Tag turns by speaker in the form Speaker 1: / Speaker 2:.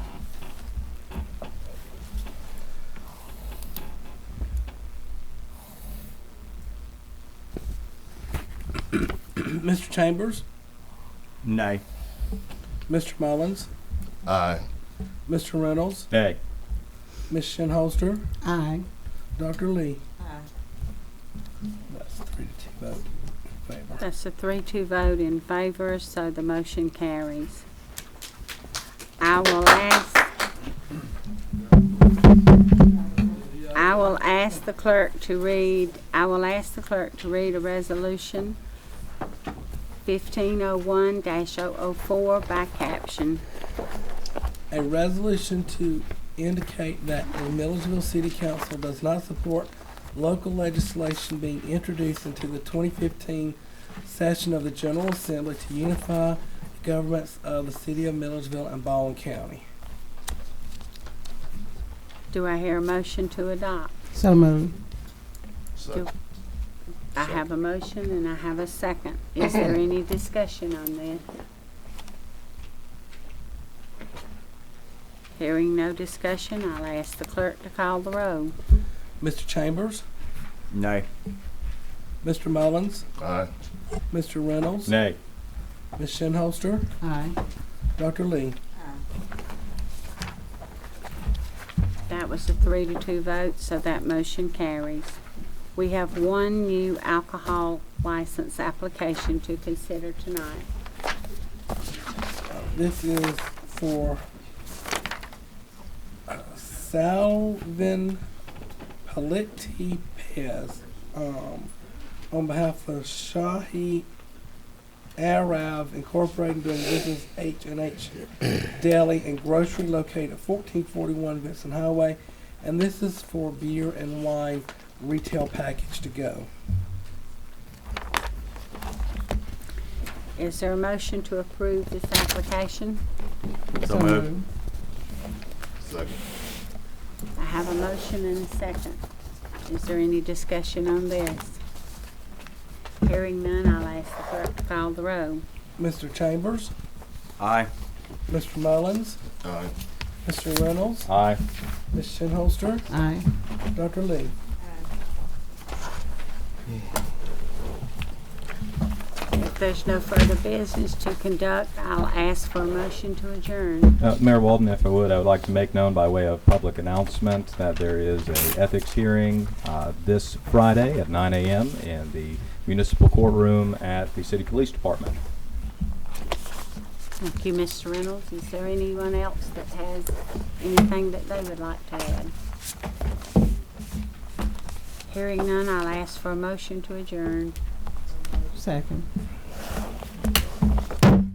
Speaker 1: Mr. Chambers,
Speaker 2: Nay.
Speaker 1: Mr. Mullins,
Speaker 3: Aye.
Speaker 1: Mr. Reynolds,
Speaker 2: Nay.
Speaker 1: Ms. Shinholster,
Speaker 4: Aye.
Speaker 1: Dr. Lee.
Speaker 5: Aye.
Speaker 1: That's three to two vote in favor.
Speaker 6: That's a three-two vote in favor, so the motion carries. I will ask, I will ask the clerk to read, I will ask the clerk to read a resolution fifteen oh one 4 by caption.
Speaker 1: A resolution to indicate that the Millersville City Council does not support local legislation being introduced into the twenty fifteen session of the General Assembly to unify the governments of the city of Millersville and Baldwin County.
Speaker 6: Do I hear a motion to adopt?
Speaker 4: So moved.
Speaker 3: Second.
Speaker 6: I have a motion and I have a second. Is there any discussion on this? Hearing no discussion, I'll ask the clerk to call the roll.
Speaker 1: Mr. Chambers,
Speaker 2: Nay.
Speaker 1: Mr. Mullins,
Speaker 3: Aye.
Speaker 1: Mr. Reynolds,
Speaker 2: Nay.
Speaker 1: Ms. Shinholster,
Speaker 4: Aye.
Speaker 1: Dr. Lee.
Speaker 6: That was a three to two vote, so that motion carries. We have one new alcohol license application to consider tonight.
Speaker 1: This is for uh, Salvin Paletti Pez um, on behalf of Shahi Arav Incorporated doing business H and H Deli and Grocery located at 1441 Vincent Highway, and this is for beer and wine retail package to go.
Speaker 6: Is there a motion to approve this application?
Speaker 2: So moved.
Speaker 3: Second.
Speaker 6: I have a motion and a second. Is there any discussion on this? Hearing none, I'll ask the clerk to call the roll.
Speaker 1: Mr. Chambers,
Speaker 2: Aye.
Speaker 1: Mr. Mullins,
Speaker 3: Aye.
Speaker 1: Mr. Reynolds,
Speaker 2: Aye.
Speaker 1: Ms. Shinholster,
Speaker 4: Aye.
Speaker 1: Dr. Lee.
Speaker 6: If there's no further business to conduct, I'll ask for a motion to adjourn.
Speaker 7: Uh, Mayor Walden, if I would, I would like to make known by way of public announcement that there is a ethics hearing uh, this Friday at 9 a.m. in the municipal courtroom at the City Police Department.
Speaker 6: Thank you, Mr. Reynolds. Is there anyone else that has anything that they would like to add? Hearing none, I'll ask for a motion to adjourn.
Speaker 4: Second.